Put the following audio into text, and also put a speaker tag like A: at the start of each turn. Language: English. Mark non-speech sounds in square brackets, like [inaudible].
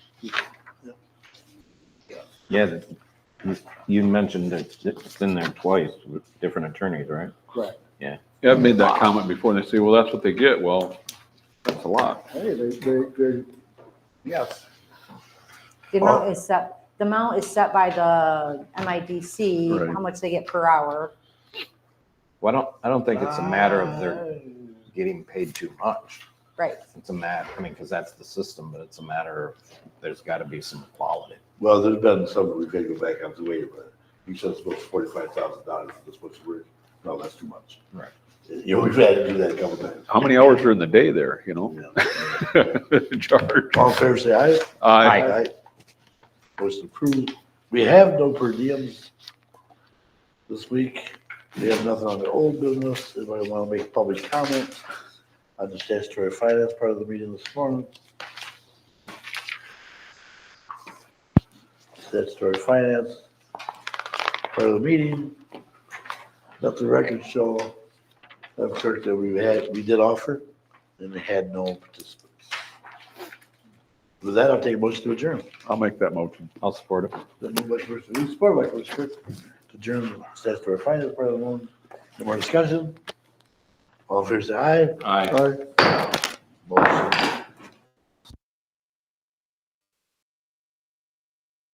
A: Yeah, that- you- you mentioned that it's in there twice with different attorneys, right?
B: Correct.
C: Yeah, I've made that comment before, and they say, well, that's what they get, well, that's a lot.
B: Hey, they, they, they, yes,
D: The amount is set, the amount is set by the MIDC,
C: Right.
D: how much they get per hour.
A: Well, I don't, I don't think it's a matter of they're getting paid too much.
D: Right.
A: It's a matter, I mean, because that's the system, but it's a matter of, there's got to be some quality.
E: Well, there's been some, we could go back on the way, but he says it's supposed forty-five thousand dollars for this much work. No, that's too much.
A: Right.
E: You know, we've had to do that a couple times.
C: How many hours are in the day there, you know? [laughs]
E: Yeah.
C: Charge.
E: All fair say aye.
C: I,
E: Motion approved. We have no per diems this week. We have nothing on the old business. Anybody want to make public comment on the statutory finance part of the meeting this morning? Statutory finance part of the meeting. Let the record show, Madam Clerk, that we had, we did offer and had no participants. With that, I'll take a motion to adjourn.
C: I'll make that motion.
A: I'll support it.
E: Then moved by Commissioner Lee, supported by Commissioner Fritz, to adjourn the statutory finance part of the loan. No more discussion? All fair say aye.
C: Aye.
E: Aye. Motion